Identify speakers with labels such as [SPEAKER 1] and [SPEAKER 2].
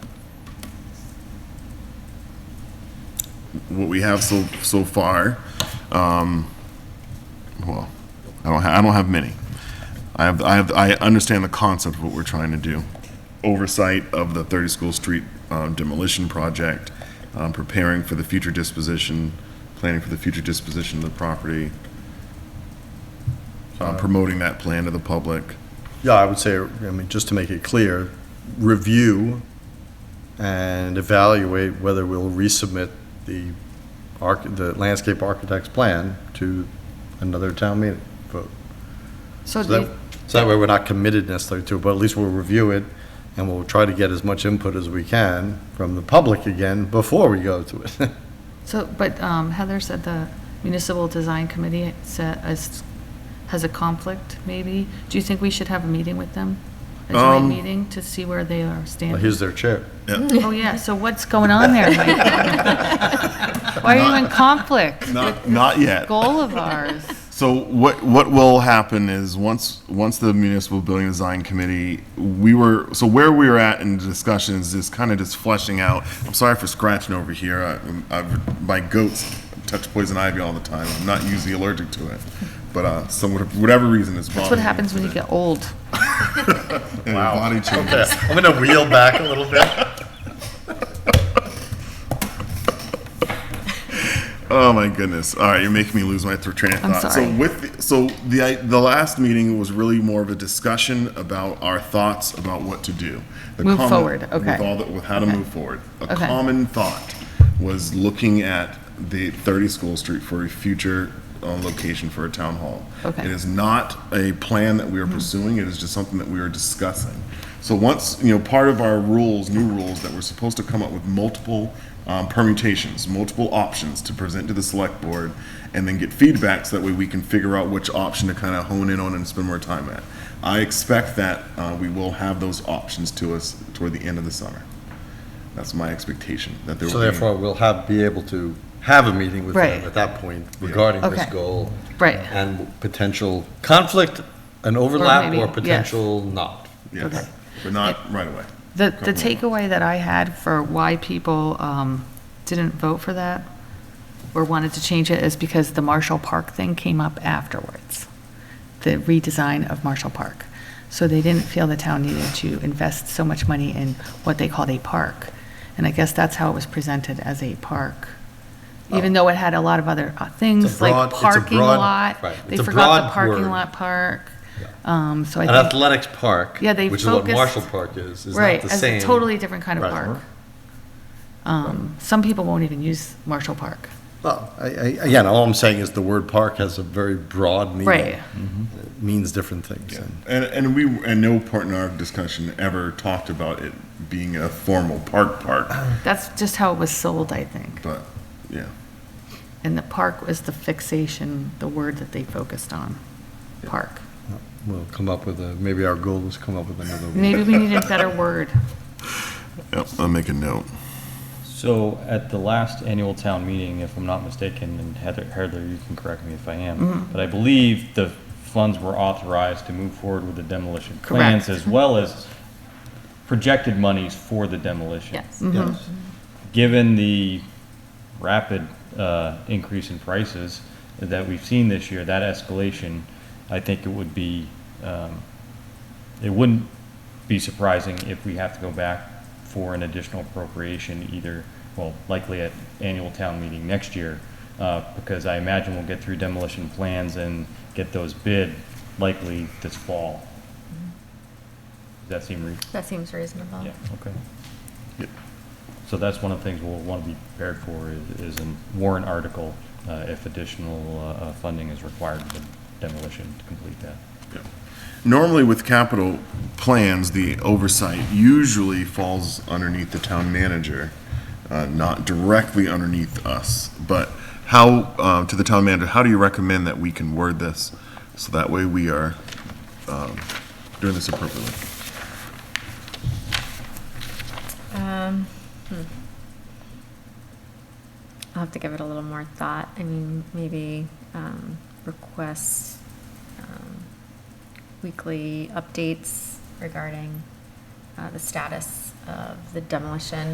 [SPEAKER 1] what we have so, so far. Um, Well, I don't, ha- I don't have many. I have, I have, I understand the concept of what we're trying to do. Oversight of the 30 School Street um, demolition project, um, preparing for the future disposition, planning for the future disposition of the property, um, promoting that plan to the public.
[SPEAKER 2] Yeah, I would say, I mean, just to make it clear, review and evaluate whether we'll resubmit the arch, the landscape architect's plan to another town meeting vote.
[SPEAKER 3] So
[SPEAKER 2] So
[SPEAKER 3] do
[SPEAKER 2] that,
[SPEAKER 3] you-
[SPEAKER 2] so that way we're not committed necessarily to, it, but at least we'll review it and we'll try to get as much input as we can from the public again before we go to it.
[SPEAKER 3] so, but um, Heather said the municipal design committee sa- is- has a conflict, maybe. Do you think we should have a meeting with them? A joint
[SPEAKER 1] Um,
[SPEAKER 3] meeting to see where they are
[SPEAKER 2] Well,
[SPEAKER 3] standing?
[SPEAKER 2] Here's their chair.
[SPEAKER 3] Oh, yeah, so what's going on there? Mike? Why are you in conflict?
[SPEAKER 1] Not, not yet.
[SPEAKER 3] Goal of ours.
[SPEAKER 1] So what what will happen is once once the municipal building design committee we were so where we were at in the discussions is kind of just fleshing out. I'm sorry for scratching over here. I, I've, my goats touch poison ivy all the time. I'm not usually allergic to it, but uh, some whatever reason it's
[SPEAKER 3] That's what happens when you get old.
[SPEAKER 1] wow. body changes.
[SPEAKER 2] I'm gonna wheel back a little bit.
[SPEAKER 1] Oh my goodness! All right, you're making me lose my th- train of
[SPEAKER 3] I'm
[SPEAKER 1] thought.
[SPEAKER 3] sorry.
[SPEAKER 1] So with the, so the I- the last meeting was really more of a discussion about our thoughts about what to do. The
[SPEAKER 3] Move forward, okay.
[SPEAKER 1] With all the, with how to move forward. A
[SPEAKER 3] Okay.
[SPEAKER 1] common thought was looking at the 30 School Street for a future uh, location for a town hall.
[SPEAKER 3] Okay.
[SPEAKER 1] It is not a plan that we are pursuing. It is just something that we are discussing. So once, you know, part of our rules, new rules, that we're supposed to come up with multiple um, permutations, multiple options to present to the select board, and then get feedback so that way we can figure out which option to kind of hone in on and spend more time at. I expect that uh, we will have those options to us toward the end of the summer. That's my expectation. That there
[SPEAKER 2] So
[SPEAKER 1] will be-
[SPEAKER 2] therefore, we'll have, be able to have a meeting with them
[SPEAKER 3] Right.
[SPEAKER 2] at that point regarding this
[SPEAKER 3] Okay.
[SPEAKER 2] goal.
[SPEAKER 3] Right.
[SPEAKER 2] And potential conflict, an overlap,
[SPEAKER 3] maybe-
[SPEAKER 2] or
[SPEAKER 3] yes.
[SPEAKER 2] potential not.
[SPEAKER 1] Yes.
[SPEAKER 3] okay.
[SPEAKER 1] but not right away.
[SPEAKER 3] The, the
[SPEAKER 1] Couple
[SPEAKER 3] takeaway that I had for why people um, didn't vote for that or wanted to change it is because the Marshall Park thing came up afterwards, the redesign of Marshall Park. So they didn't feel the town needed to invest so much money in what they called a park. And I guess that's how it was presented as a park, even though it had a lot of other uh,
[SPEAKER 2] Oh. It's
[SPEAKER 3] things
[SPEAKER 2] a broad-
[SPEAKER 3] like
[SPEAKER 2] it's a
[SPEAKER 3] parking
[SPEAKER 2] broad-
[SPEAKER 3] lot.
[SPEAKER 2] right,
[SPEAKER 3] They
[SPEAKER 2] it's a
[SPEAKER 3] forgot the
[SPEAKER 2] broad
[SPEAKER 3] parking
[SPEAKER 2] word.
[SPEAKER 3] lot park. Um, So I
[SPEAKER 2] An
[SPEAKER 3] think.
[SPEAKER 2] athletics park,
[SPEAKER 3] Yeah, they
[SPEAKER 2] which is what
[SPEAKER 3] focused-
[SPEAKER 2] Marshall Park is, is not
[SPEAKER 3] Right,
[SPEAKER 2] the
[SPEAKER 3] as
[SPEAKER 2] same.
[SPEAKER 3] a totally different kind of
[SPEAKER 2] Right.
[SPEAKER 3] park. Um, Some people won't even use Marshall Park.
[SPEAKER 2] Well, I, I, again, all I'm saying is the word park has a very broad meaning. Mm-hmm.
[SPEAKER 3] Right.
[SPEAKER 2] It means different things. and-
[SPEAKER 1] And, and we, and no part in our discussion ever talked about it being a formal park park,
[SPEAKER 3] That's just how it was sold, I think.
[SPEAKER 1] but, yeah.
[SPEAKER 3] And the park was the fixation, the word that they focused on, park.
[SPEAKER 2] We'll come up with a, maybe our goal is come up with another word.
[SPEAKER 3] Maybe we need a better word.
[SPEAKER 1] Yep, I'll make a note.
[SPEAKER 4] So at the last annual town meeting, if I'm not mistaken, and Heather, Heather, you can correct me if I am, but I believe the funds were authorized to move forward with the demolition plans
[SPEAKER 3] Correct.
[SPEAKER 4] as well as projected monies for the demolition.
[SPEAKER 3] Yes. Mm-hmm.
[SPEAKER 2] Yes.
[SPEAKER 4] Given the rapid uh, increase in prices that we've seen this year, that escalation, I think it would be, um, it wouldn't be surprising if we have to go back for an additional appropriation either, well, likely at annual town meeting next year, uh, because I imagine we'll get through demolition plans and get those bid likely this fall. Does that seem reasonable?
[SPEAKER 5] That seems reasonable.
[SPEAKER 4] Yeah, okay. So that's one of the things we'll want to be prepared for is- is a warrant article uh, if additional uh, uh, funding is required for demolition to complete that.
[SPEAKER 1] Normally with capital plans, the oversight usually falls underneath the town manager, uh, not directly underneath us. But how, uh, to the town manager, how do you recommend that we can word this? So that way we are, um, doing this appropriately.
[SPEAKER 5] Um, hmm. I'll have to give it a little more thought. I mean, maybe um, request um, weekly updates regarding uh, the status of the demolition